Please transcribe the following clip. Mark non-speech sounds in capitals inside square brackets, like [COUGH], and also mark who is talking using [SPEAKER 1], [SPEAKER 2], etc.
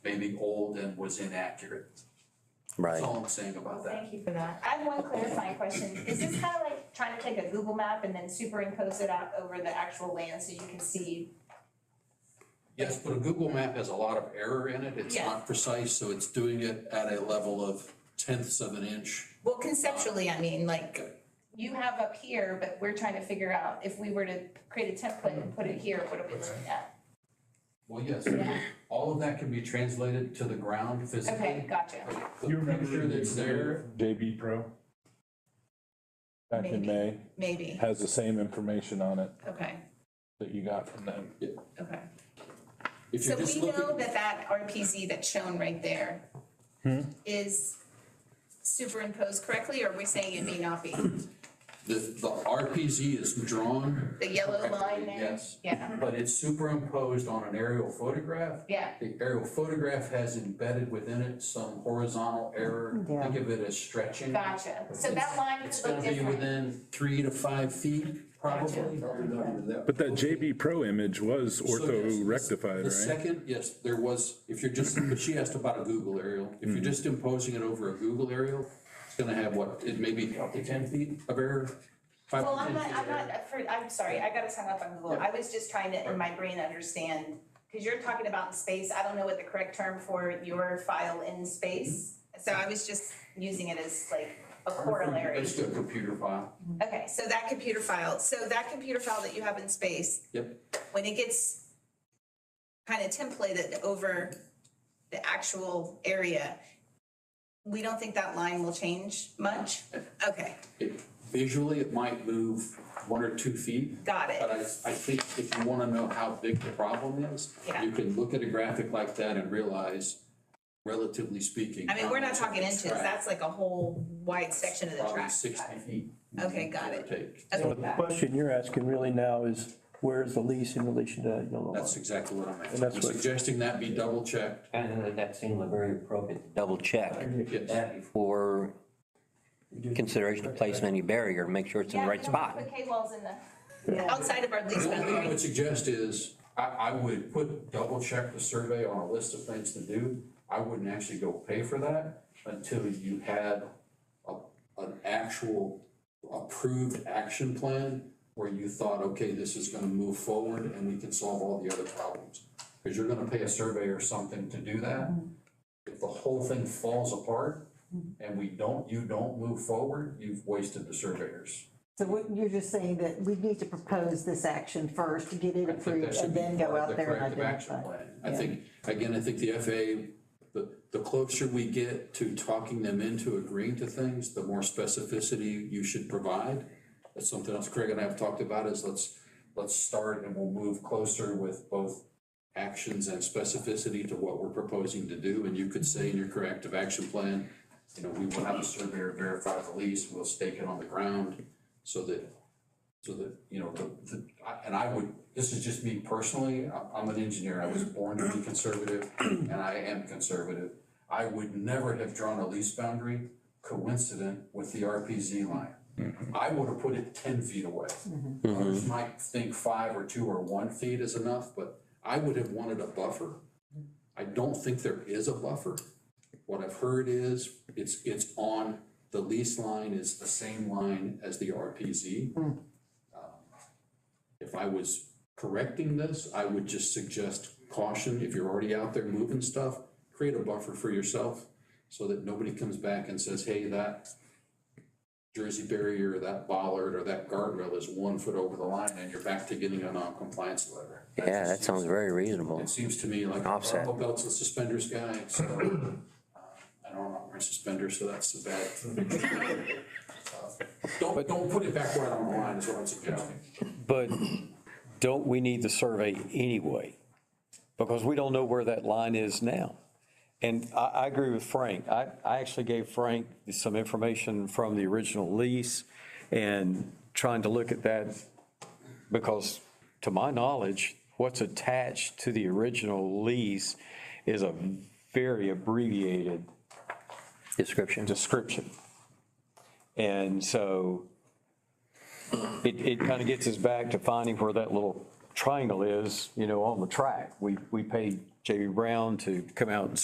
[SPEAKER 1] maybe old and was inaccurate. That's
[SPEAKER 2] right.
[SPEAKER 1] all I'm saying about that.
[SPEAKER 3] Thank you for that. I have one clarifying question. Is this kind of like trying to take a Google map and then superimpose it out over the actual land so you can see?
[SPEAKER 1] Yes, but a Google map has a lot of error in it. It's
[SPEAKER 3] Yeah.
[SPEAKER 1] not precise, so it's doing it at a level of tenths of an inch.
[SPEAKER 3] Well, conceptually, I mean, like, you have up here, but we're trying to figure out if we were to create a template and put it here, what are we looking at?
[SPEAKER 1] Well, yes, all of that can be translated to the ground
[SPEAKER 3] Okay,
[SPEAKER 1] physically.
[SPEAKER 3] gotcha.
[SPEAKER 1] The picture that's there,
[SPEAKER 4] JB Pro? Back in
[SPEAKER 3] Maybe.
[SPEAKER 4] May,
[SPEAKER 3] Maybe.
[SPEAKER 4] has the same information on it
[SPEAKER 3] Okay,
[SPEAKER 4] that you got from them.
[SPEAKER 3] okay.
[SPEAKER 1] if
[SPEAKER 3] So
[SPEAKER 1] you're just
[SPEAKER 3] we know
[SPEAKER 1] looking,
[SPEAKER 3] that that RPZ that's shown right there
[SPEAKER 1] Hmm?
[SPEAKER 3] is superimposed correctly, or are we saying it may not be?
[SPEAKER 1] the, the RPZ is drawn.
[SPEAKER 3] The yellow
[SPEAKER 1] correctly,
[SPEAKER 3] line there?
[SPEAKER 1] Yes,
[SPEAKER 3] Yeah,
[SPEAKER 1] but it's superimposed on an aerial photograph.
[SPEAKER 3] yeah,
[SPEAKER 1] The aerial photograph has embedded within it some horizontal error.
[SPEAKER 5] Yeah.
[SPEAKER 1] Think of it as stretching.
[SPEAKER 3] gotcha. So that line
[SPEAKER 1] It's
[SPEAKER 3] could
[SPEAKER 1] gonna
[SPEAKER 3] look
[SPEAKER 1] be
[SPEAKER 3] different.
[SPEAKER 1] within three to five feet, probably.
[SPEAKER 4] But that JB Pro image was
[SPEAKER 1] So yes,
[SPEAKER 4] ortho
[SPEAKER 1] the-
[SPEAKER 4] rectified,
[SPEAKER 1] The
[SPEAKER 4] right?
[SPEAKER 1] second, yes, there was, if you're just, but she asked about a Google aerial. If
[SPEAKER 4] Hmm.
[SPEAKER 1] you're just imposing it over a Google aerial, it's gonna have what, it may be up to ten feet of error? five to
[SPEAKER 3] Well, I'm
[SPEAKER 1] 10
[SPEAKER 3] not,
[SPEAKER 1] feet of
[SPEAKER 3] I'm
[SPEAKER 1] error.
[SPEAKER 3] not, for- I'm sorry, I got us hung up on Google. I was just trying to, in my brain, understand, because you're talking about space, I don't know what the correct term for your file in space. So I was just using it as like a corollary.
[SPEAKER 1] It's a computer file.
[SPEAKER 3] Okay, so that computer file, so that computer file that you have in space.
[SPEAKER 1] Yep.
[SPEAKER 3] When it gets kind of templated over the actual area, we don't think that line will change
[SPEAKER 1] [LAUGHS]
[SPEAKER 3] much? Okay,
[SPEAKER 1] It- Visually, it might move one or two feet,
[SPEAKER 3] got
[SPEAKER 1] but
[SPEAKER 3] it.
[SPEAKER 1] I, I think if you wanna know how big the problem is,
[SPEAKER 3] Yeah.
[SPEAKER 1] you can look at a graphic like that and realize, relatively speaking.
[SPEAKER 3] I mean, we're
[SPEAKER 1] how
[SPEAKER 3] not
[SPEAKER 1] much
[SPEAKER 3] talking
[SPEAKER 1] it's
[SPEAKER 3] inches,
[SPEAKER 1] tracked.
[SPEAKER 3] that's like a whole wide section of the
[SPEAKER 1] Probably
[SPEAKER 3] track.
[SPEAKER 1] sixty feet.
[SPEAKER 3] Okay, got
[SPEAKER 1] give or
[SPEAKER 3] it.
[SPEAKER 1] take.
[SPEAKER 3] Okay,
[SPEAKER 6] So the question you're asking really now is, where is the lease in relation to that yellow line?
[SPEAKER 1] That's exactly what I'm asking.
[SPEAKER 6] And that's
[SPEAKER 1] I'm
[SPEAKER 6] what-
[SPEAKER 1] suggesting that be double checked.
[SPEAKER 7] And then that seemed very appropriate to double check
[SPEAKER 1] Yes.
[SPEAKER 7] that before consideration of placing any barrier, make sure it's in the right spot.
[SPEAKER 3] Put K walls in the, outside of our lease
[SPEAKER 1] The only thing I
[SPEAKER 3] boundary.
[SPEAKER 1] would suggest is, I, I would put, double check the survey on a list of things to do. I wouldn't actually go pay for that until you had a, an actual approved action plan where you thought, okay, this is gonna move forward and we can solve all the other problems. Cause you're gonna pay a surveyor something to do that. If the whole thing falls apart and we don't, you don't move forward, you've wasted the surveyors.
[SPEAKER 5] So what, you're just saying that we need to propose this action first to get it
[SPEAKER 1] I think that
[SPEAKER 5] approved
[SPEAKER 1] should
[SPEAKER 5] and
[SPEAKER 1] be
[SPEAKER 5] then go
[SPEAKER 1] part of
[SPEAKER 5] out
[SPEAKER 1] the
[SPEAKER 5] there and
[SPEAKER 1] corrective action
[SPEAKER 5] identify.
[SPEAKER 1] plan. I think, again, I think the FAA, the, the closer we get to talking them into agreeing to things, the more specificity you should provide. That's something else Craig and I have talked about is let's, let's start and we'll move closer with both actions and specificity to what we're proposing to do. And you could say in your corrective action plan, you know, we will have a surveyor verify the lease, we'll stake it on the ground so that so that, you know, the, the, I- and I would, this is just me personally, I- I'm an engineer, I was born to be conservative, and I am conservative. I would never have drawn a lease boundary coincident with the RPZ line. I would have put it ten feet away. Others might think five or two or one feet is enough, but I would have wanted a buffer. I don't think there is a buffer. What I've heard is, it's, it's on, the lease line is the same line as the RPZ. Um, If I was correcting this, I would just suggest caution, if you're already out there moving stuff, create a buffer for yourself so that nobody comes back and says, hey, that Jersey barrier, or that bollard, or that guardrail is one foot over the line and you're back to getting a non-compliance letter.
[SPEAKER 7] Yeah, that
[SPEAKER 1] just-
[SPEAKER 7] sounds very reasonable.
[SPEAKER 1] It seems to me like a
[SPEAKER 7] Offset.
[SPEAKER 1] purple belts and suspenders guy, so uh, I don't know, wearing suspenders, so that's a bad. Uh, Don't, don't put it back right on the line is what I'm suggesting.
[SPEAKER 8] But don't we need the survey anyway? Because we don't know where that line is now. And I, I agree with Frank. I, I actually gave Frank some information from the original lease and trying to look at that because to my knowledge, what's attached to the original lease is a very abbreviated
[SPEAKER 7] Description.
[SPEAKER 8] description. And so it, it kind of gets us back to finding where that little triangle is, you know, on the track. We, we paid J.B. Brown to come out and